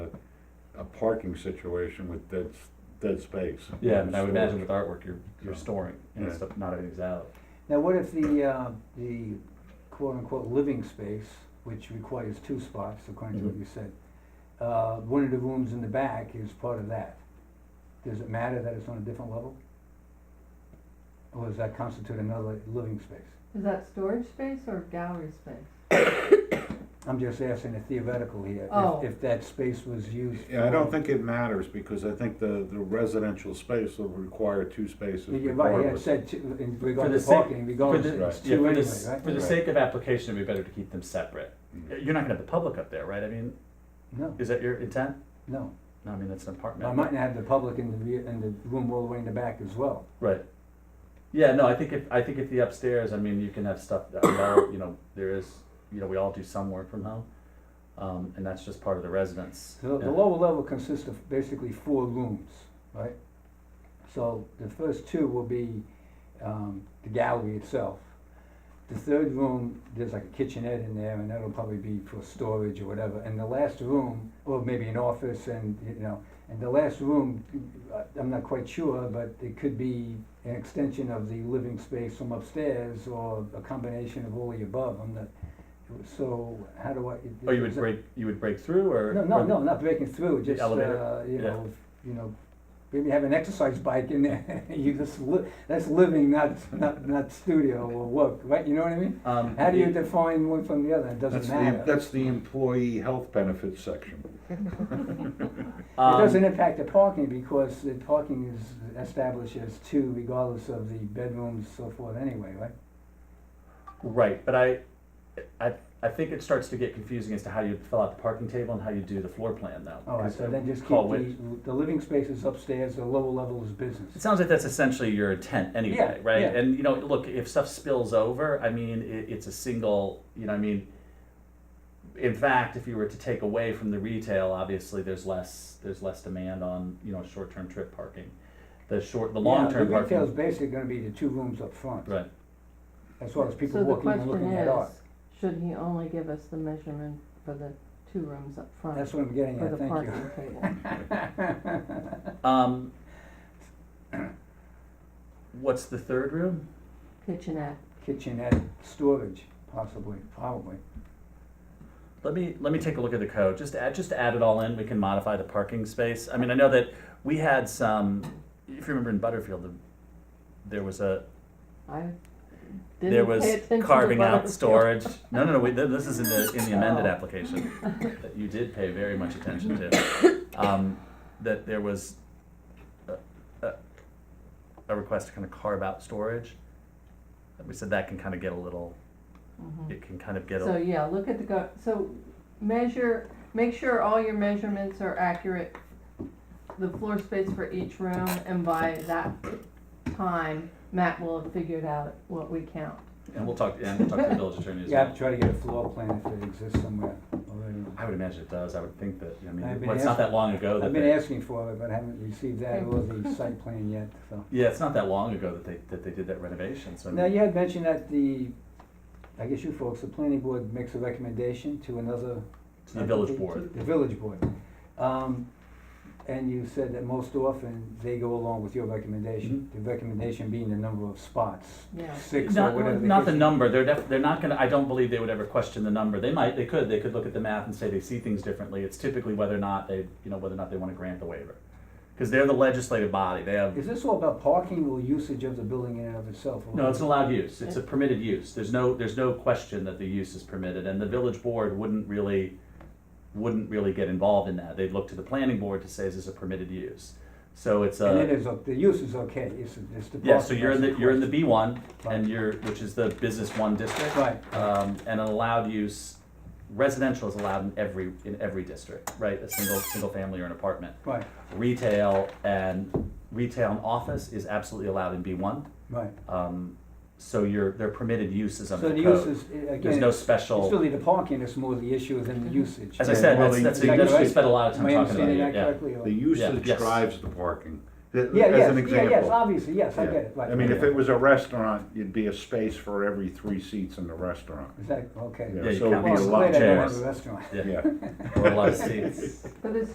a parking situation with dead, s- dead space. Yeah, and I would imagine with artwork, you're, you're Yeah. storing and Yeah. stuff, not everything's out. Now, what if the, uh, the quote-unquote living space, which requires two spots, according to what Mhm. you said, uh, one of the rooms in the back is part of that? Does it matter that it's on a different level? Or does that constitute another living space? Is that storage space or gallery space? I'm just asking a theoretical here, Oh. if, if that space was used. Yeah, I don't for- think it matters, because I think the, the residential space will require two spaces You're right, yeah, it regardless. said two, in the regard to sake- parking, For regardless, the, it's yeah, for two the, anyway, s- right? Mm-hmm. for the Right. sake of application, it'd be better to keep them separate. Mm. You're not gonna have the public up there, right? I mean, No, is that your intent? no. No, I mean, that's an apartment. I might not have the public in the, rear- in the room all the way in the back as well. Right. Yeah, no, I think if, I think if the upstairs, I mean, you can have stuff, that I know, you know, there is, you know, we all do some work from home. Um, and that's just part of the residence. So the Yeah. lower level consists of basically four rooms, right? So the first two will be um, the gallery itself. The third room, there's like a kitchenette in there, and that'll probably be for storage or whatever. And the last room, or maybe an office, and you know, and the last room, uh, I'm not quite sure, but it could be an extension of the living space from upstairs, or a combination of all the above. I'm not. So how do I? Oh, you would is that- break, you would break through or? no, no, or- no, not breaking through, just, elevator? uh, you Yeah. know, if- you know, maybe have an exercise bike in there, you just li- that's living, not, not, not studio or work, right, you know what I mean? Um, How do you define one from the other, it doesn't That's the, matter, it that's the employee health benefits section. um, doesn't impact the parking, because the parking is established as two regardless of the bedrooms, so forth anyway, right? Right, but I, I, I think it starts to get confusing as to how you fill out the parking table and how you do the floor plan now. All right, so Oh, then just keep Call which- the, the living spaces upstairs, the lower level is business. It sounds like that's essentially your intent anyway, Yeah, right? yeah. And, you know, look, if stuff spills over, I mean, it, it's a single, you know, I mean, in fact, if you were to take away from the retail, obviously, there's less, there's less demand on, you know, short-term trip parking. The short, the long-term Yeah, The retail's parking, basically gonna be the two rooms up front, right, as well as people walking and looking at art. So the question is, should he only give us the measurement for the two rooms up front? That's what I'm getting For at, the thank you. parking table? um. What's the third room? Kitchenette, Kitchenette storage, possibly, probably. Let me, let me take a look at the code, just add, just add it all in, we can modify the parking space. I mean, I know that we had some, if you remember in Butterfield, the- there was a, I there didn't was pay attention to carving out Butterfield. storage. No, no, no, we, this is in the, in the amended Oh. application that you did pay very much attention to. Um, that there was a, a, a request to kind of carve out storage. And We said that can kind of get a little, Mhm. it can kind of get So, a, yeah, look at the go, so measure, make sure all your measurements are accurate, the floor space for each room, and by that time, Matt will have figured out what we count. and we'll talk, and we'll talk to the village attorney as well. Yeah, I'll try to get a floor plan if it exists somewhere already. I would imagine it does. I would think that, I mean, I've been well, it's not that long ago that I've been they, asking for it, but I haven't received that or the site plan yet, so. yeah, it's not that long ago that they, that they did that renovation, so. I Now, mean- you had mentioned that the, I guess you folks, the planning board makes a recommendation to another. To the village board. The village board. Um, and you said that most often they go along with your recommendation, Mm-hmm. the recommendation being the number of spots, Yeah. six or Not, whatever. the not the case- number, they're def, they're not gonna, I don't believe they would ever question the number. They might, they could, they could look at the math and say they see things differently. It's typically whether or not they, you know, whether or not they wanna grant the waiver. Cause they're the legislative body, they have, Is this all about parking or usage of the building in and of itself? or- no, it's an allowed use. It's a permitted use. There's no, there's no question that the use is permitted and the village board wouldn't really, wouldn't really get involved in that. They'd look to the planning board to say, is this a permitted use? So it's a. And it is, o- the use is okay, it's, it's the parking. Yeah, so you're in the, that's you're in the B one, Right. and you're, which is the business one district. Right. Um, and an allowed use, residential is allowed in every, in every district, right, a single, single family or an apartment. Right, Retail and, retail and office is absolutely allowed in B one, right. um, so you're, they're permitted uses So under the the use code. is, There's again, no it's it's special, really the parking that's more the issue than the usage. as I Yeah, said, well, that's, the- that's, Is that that's, we correct? spent a lot of Am time I talking about understanding it, that yeah. correctly? or- The Yeah, usage yes. drives the parking, Th- Yeah, as an yes, yeah, yes, example. obviously, yes, I Yeah. get it, right. I mean, if Yeah. it was a restaurant, it'd be a space for every three seats in the restaurant. Is that, okay. Yeah, you So it'd can't be a Well, have I'm lot, glad I don't have chairs. a restaurant. Yeah. yeah. Or a lot of seats. But it's